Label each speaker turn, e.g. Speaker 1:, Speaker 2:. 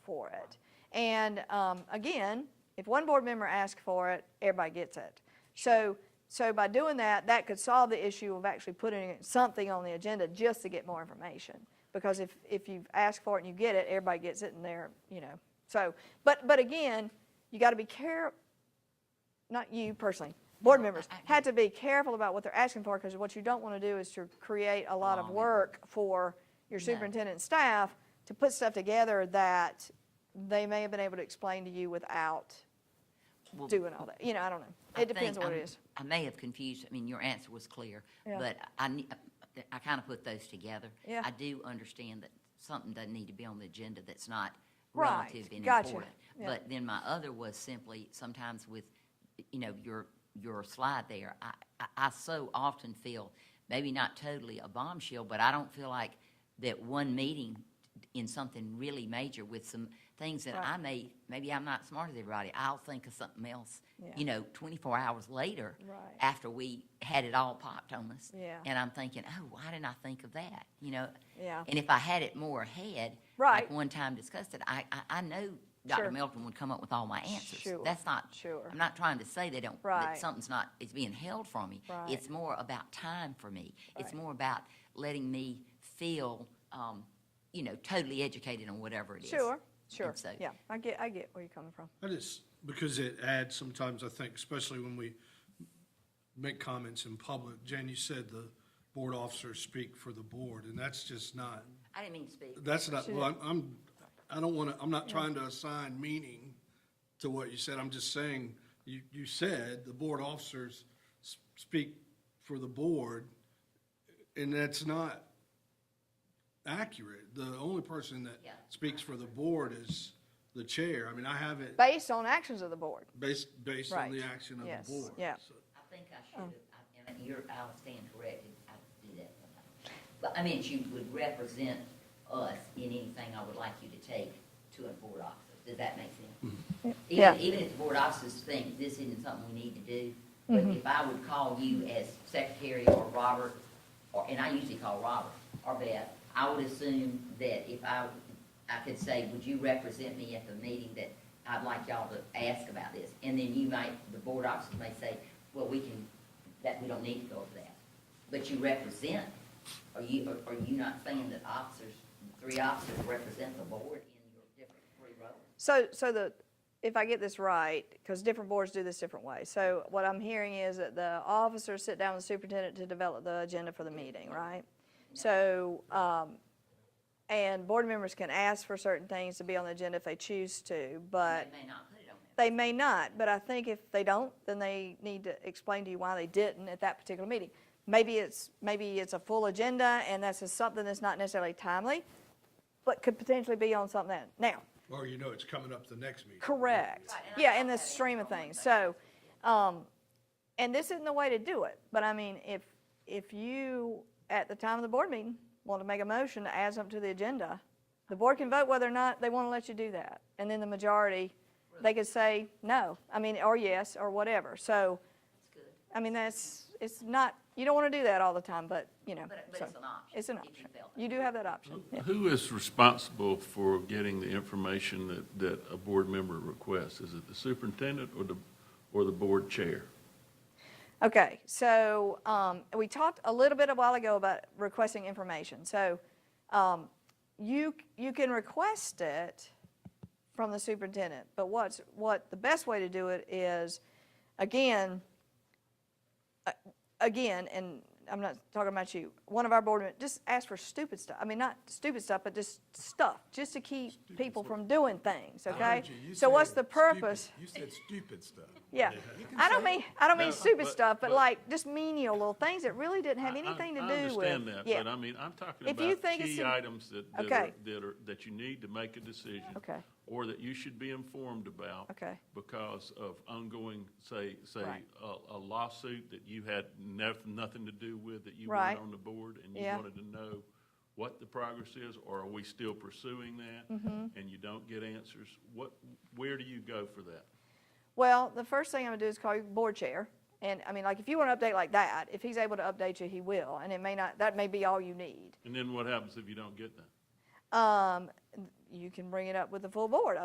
Speaker 1: out. And um, again, if one board member asks for it, everybody gets it. So, so by doing that, that could solve the issue of actually putting something on the agenda just to get more information. Because if, if you ask for it and you get it, everybody gets it and they're, you know, so, but, but again, you got to be care, not you personally, board
Speaker 2: Mm. No,
Speaker 1: members,
Speaker 2: I- I-
Speaker 1: had to be careful about what they're asking for, because what you don't want to do is to create a lot of
Speaker 2: Long.
Speaker 1: work for your
Speaker 2: No.
Speaker 1: superintendent and staff to put stuff together that they may have been able to explain to you without
Speaker 2: Well,
Speaker 1: doing all that, you know, I don't know.
Speaker 2: I
Speaker 1: It depends
Speaker 2: think
Speaker 1: on what it
Speaker 2: I'm-
Speaker 1: is.
Speaker 2: I may have confused, I mean, your answer was clear,
Speaker 1: Yeah.
Speaker 2: but I, ne- I kind of put those together.
Speaker 1: Yeah.
Speaker 2: I do understand that something doesn't need to be on the agenda that's not
Speaker 1: Right,
Speaker 2: relative and
Speaker 1: gotcha,
Speaker 2: important.
Speaker 1: yeah.
Speaker 2: But then my other was simply, sometimes with, you know, your, your slide there, I, I, I so often feel, maybe not totally a bombshell, but I don't feel like that one meeting in something really major with some things that
Speaker 1: Right.
Speaker 2: I may, maybe I'm not smart as everybody, I'll think of something else,
Speaker 1: Yeah.
Speaker 2: you know, twenty-four hours later.
Speaker 1: Right.
Speaker 2: After we had it all popped on us.
Speaker 1: Yeah.
Speaker 2: And I'm thinking, oh, why didn't I think of that, you know?
Speaker 1: Yeah.
Speaker 2: And if I had it more ahead.
Speaker 1: Right.
Speaker 2: Like one time discussed it, I, I, I know Dr.
Speaker 1: Sure.
Speaker 2: Melton would come up with all my answers.
Speaker 1: Sure,
Speaker 2: That's not.
Speaker 1: sure.
Speaker 2: I'm not trying to say they don't,
Speaker 1: Right.
Speaker 2: that something's not, it's being held from me.
Speaker 1: Right.
Speaker 2: It's more about time for me. It's
Speaker 1: Right.
Speaker 2: more about letting me feel, um, you know, totally educated on whatever it is.
Speaker 1: Sure, sure,
Speaker 2: And so-
Speaker 1: yeah, I get, I get where you're coming from.
Speaker 3: I just, because it adds sometimes, I think, especially when we make comments in public. Jan, you said the board officers speak for the board, and that's just not,
Speaker 2: I didn't mean to speak.
Speaker 3: that's not, well, I'm- I'm, I don't want to, I'm not trying to assign meaning to what you said. I'm just saying, you, you said the board officers s- speak for the board, and that's not accurate. The only person that
Speaker 2: Yeah.
Speaker 3: speaks for the board is the chair. I mean, I haven't.
Speaker 1: Based on actions of the board.
Speaker 3: Based, based on the
Speaker 1: Right.
Speaker 3: action of
Speaker 1: Yes.
Speaker 3: the board.
Speaker 1: Yeah.
Speaker 3: so.
Speaker 2: I think I should have, I- and you're, I'll stand corrected, I do that sometimes. But I meant you would represent us in anything I would like you to take to a board officer. Does that make sense?
Speaker 1: Yeah.
Speaker 2: Even, even if the board officers think this isn't something we need to do, but if I would call you as secretary or Robert, or, and I usually call Robert or Beth, I would assume that if I, I could say, would you represent me at the meeting that I'd like y'all to ask about this? And then you might, the board officers may say, well, we can, that, we don't need to go over that. But you represent, are you, are- are you not saying that officers, three officers represent the board in your different three roles?
Speaker 1: So, so the, if I get this right, because different boards do this different way, so what I'm hearing is that the officers sit down with the superintendent to develop the agenda for the meeting, right? So, um, and board members can ask for certain things to be on the agenda if they choose to, but
Speaker 2: They may not put it on there.
Speaker 1: they may not, but I think if they don't, then they need to explain to you why they didn't at that particular meeting. Maybe it's, maybe it's a full agenda, and that's just something that's not necessarily timely, but could potentially be on something that, now,
Speaker 3: Or you know it's coming up the next meeting.
Speaker 1: Correct.
Speaker 2: Right, and I
Speaker 1: Yeah,
Speaker 2: thought
Speaker 1: in the
Speaker 2: that answered
Speaker 1: stream of
Speaker 2: all my
Speaker 1: things. So, um, and this isn't the way to do it, but I mean, if, if you, at the time of the board meeting, want to make a motion to add something to the agenda, the board can vote whether or not they want to let you do that. And then the majority, they could say no, I mean, or yes, or whatever. So,
Speaker 2: It's good.
Speaker 1: I mean, that's, it's not, you don't want to do that all the time, but, you know.
Speaker 2: But- but
Speaker 1: so
Speaker 2: it's an option,
Speaker 1: It's an
Speaker 2: if you
Speaker 1: option.
Speaker 2: felt that
Speaker 1: You do have that option. yeah.
Speaker 4: Who is responsible for getting the information that, that a board member requests? Is it the superintendent or the, or the board chair?
Speaker 1: Okay, so um, we talked a little bit a while ago about requesting information. So um, you, you can request it from the superintendent, but what's, what, the best way to do it is, again, a- again, and I'm not talking about you, one of our board members, just ask for stupid stuff. I mean, not stupid stuff, but just stuff, just to keep people from doing things, okay?
Speaker 5: heard you. You
Speaker 1: So what's
Speaker 5: said
Speaker 1: the
Speaker 5: stupid-
Speaker 1: purpose?
Speaker 5: You said stupid stuff.
Speaker 1: Yeah,
Speaker 5: You can
Speaker 1: I don't
Speaker 5: say
Speaker 1: mean, I don't mean
Speaker 4: No,
Speaker 1: stupid
Speaker 4: but-
Speaker 1: stuff, but
Speaker 4: but-
Speaker 1: like just menial little things that really didn't have
Speaker 4: I- I-
Speaker 1: anything to do
Speaker 4: I
Speaker 1: with.
Speaker 4: understand that,
Speaker 1: yeah.
Speaker 4: but I mean, I'm talking
Speaker 1: If you
Speaker 4: about
Speaker 1: think it's
Speaker 4: key
Speaker 1: an-
Speaker 4: items that, that
Speaker 1: Okay.
Speaker 4: are, that are, that you need to make a decision.
Speaker 1: Okay.
Speaker 4: Or that you should be informed about.
Speaker 1: Okay.
Speaker 4: Because of ongoing, say, say,
Speaker 1: Right.
Speaker 4: a a lawsuit that you had noth- nothing to do with, that you
Speaker 1: Right.
Speaker 4: weren't on the board, and you
Speaker 1: Yeah.
Speaker 4: wanted to know what the progress is, or are we still pursuing that?
Speaker 1: Mm-hmm.
Speaker 4: And you don't get answers, what, where do you go for that?
Speaker 1: Well, the first thing I'm gonna do is call your board chair, and I mean, like, if you want to update like that, if he's able to update you, he will, and it may not, that may be all you need.
Speaker 4: And then what happens if you don't get that?
Speaker 1: Um, you can bring it up with the full board,